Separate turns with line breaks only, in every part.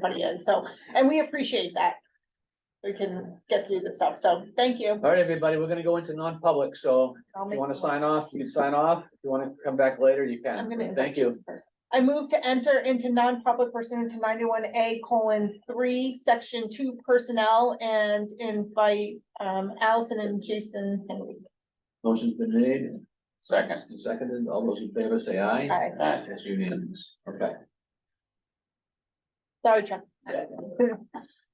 money in, so, and we appreciate that. We can get through this stuff, so thank you.
All right, everybody, we're gonna go into non-public, so
I'll
if
make-
you wanna sign off, you can sign off. If you wanna come back later, you
I'm gonna
can.
invite
Thank you.
I move to enter into non-public pursuant to ninety-one A colon three, section two personnel and invite um Allison and Jason Henry.
Motion's been made.
Second. Uh,
and Seconded. All those in favor say aye.
Aye.
Aye.
That's unanimous. Okay.
Sorry, Chuck.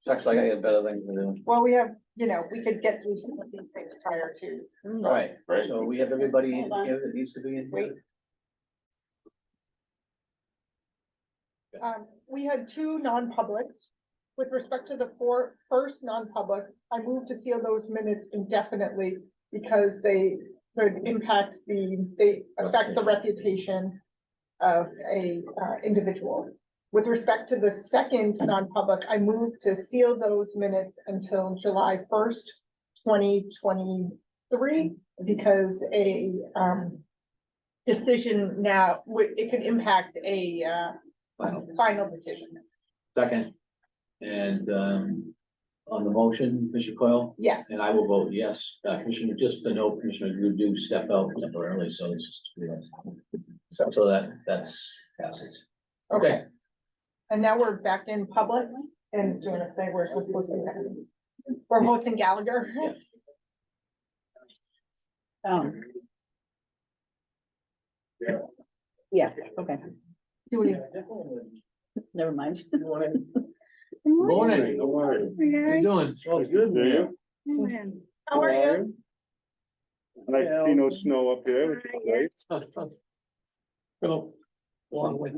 Looks like I got better things to do.
Well, we have, you know, we could get through some of these things prior to.
All right,
Right.
so we have everybody in
Hold on.
here that needs to be in
Wait.
here.
Um, we had two non-publics. With respect to the four, first non-public, I moved to seal those minutes indefinitely because they could impact the, they affect the reputation of a, uh, individual. With respect to the second non-public, I moved to seal those minutes until July first, twenty twenty-three, because a, um, decision now, would, it could impact a, uh,
Final.
final decision.
Second. And, um, on the motion, Commissioner Coyle,
Yes,
and I will vote yes. Uh, Commissioner, just to note, Commissioner, you do step out temporarily, so it's just. So so that, that's passes.
okay. And now we're back in public and doing a say we're hosting that. We're hosting Gallagher.
Um. Yeah, okay,
Do we,
never mind.
Morning. How you doing?
Good, man.
how are you?
Nice to see no snow up here, which is nice.
Well, long way.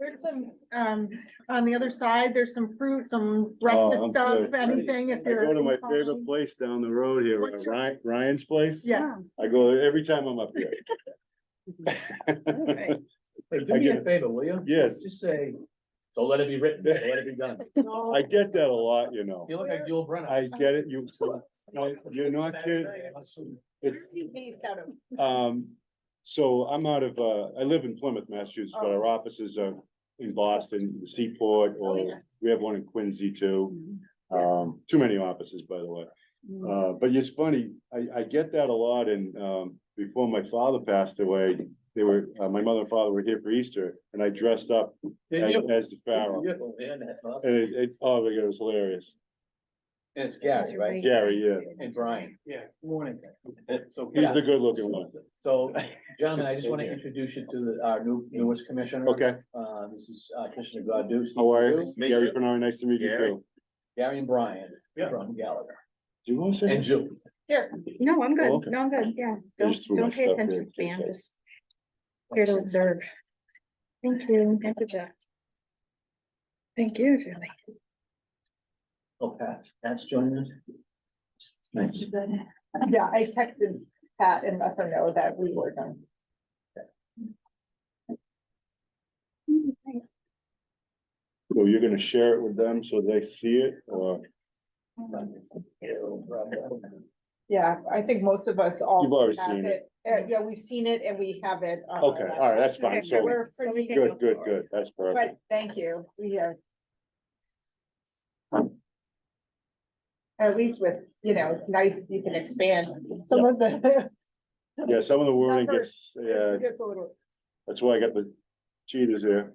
There's some, um, on the other side, there's some fruit, some breakfast
Oh, I'm
stuff,
good.
anything if
I
you're.
go to my favorite place down the road here,
What's your-
Ryan, Ryan's place.
Yeah,
I go there every time I'm up here.
Alright.
Hey, do me a favor, will you?
Yes.
Just say, so let it be written, so let it be done.
Oh.
I get that a lot, you know.
You look like Yul Brynner.
I get it, you, no, you're not kidding. It's,
you based out of,
um, so I'm out of, uh, I live in Plymouth, Massachusetts, but
Oh.
our offices are in Boston, Seaport, or we have one in Quincy too.
Mm-hmm.
Um, too many offices, by the way. Uh, but it's funny, I, I get that a lot and, um, before my father passed away, they were, uh, my mother and father were here for Easter and I dressed up
Did
as,
you?
as the pharaoh.
Beautiful, man, that's awesome.
And it, it, oh my god, it was hilarious.
And it's Gary, right?
Gary, yeah,
And Brian. Yeah. Morning. So,
he's the good looking one.
so gentlemen, I just want to introduce you to the- our new newest commissioner.
Okay,
Uh, this is uh, Commissioner Godu. Steve
how are you?
Godu,
Gary Bernard, nice to meet you
Gary.
too.
Gary and Brian from Gallagher
Do you want to
and
say?
Jill.
here,
No, I'm
Oh,
good,
okay.
no, I'm good, yeah,
I
don't,
just threw my
don't pay
stuff here,
attention to me, I'm
just a-
just here to observe. Thank you, thank you, Jack. Thank you, Julie.
Oh, Pat, Pat's joining us. It's nice.
yeah, I texted Pat and let her know that we were done.
So you're gonna share it with them so they see it or
Yeah, I think most of us all.
You've already
have
seen it.
Uh, yeah, we've seen it and we have it. on our
Okay, all right, that's
laptop.
fine, so-
We're
So we
pretty-
can go
good, good,
forward.
good, that's perfect.
But thank you, we have. At least with, you know, it's nice, you can expand some of the.
Yeah, some of the wording gets, yeah,
It's a little-
that's why I got the cheaters here.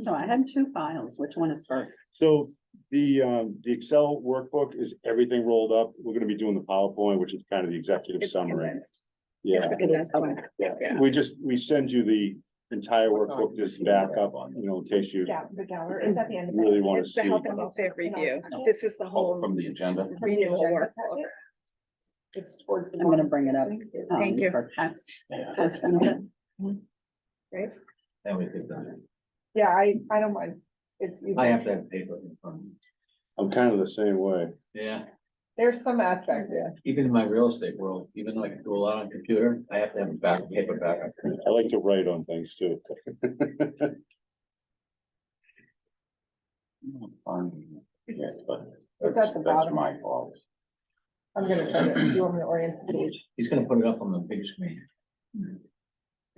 So I have two files. Which one is first?
So the, um, the Excel workbook is everything rolled up. We're gonna be doing the PowerPoint, which is kind of the executive
It's
summary.
condensed. It's
Yeah,
condensed, okay. Yeah.
we just, we send you the entire workbook just back up, you know, in case you
Yeah, the gallery, it's at the end. of
really
that.
wanna
It's the
see.
health and welfare review, this is the
Oh,
whole.
from the agenda.
Read the
renewal
agenda
work.
packet. It's towards the.
I'm gonna bring it up.
bottom.
um,
Thank you.
For Pat's, Pat's benefit.
And we could done
Yeah, I, I don't mind. It's, easy.
it. I have to have paper in front of me.
I'm kind of the same way.
Yeah.
there's some aspects, yeah.
even in my real estate world, even though I can do a lot on computer, I have to have a back, paper backup.
I like to write on things too.
Yeah, but
It's
that's-
at the
That's
bottom.
my fault.
I'm gonna try to, do you want me to orient the page?
He's gonna put it up on the big screen.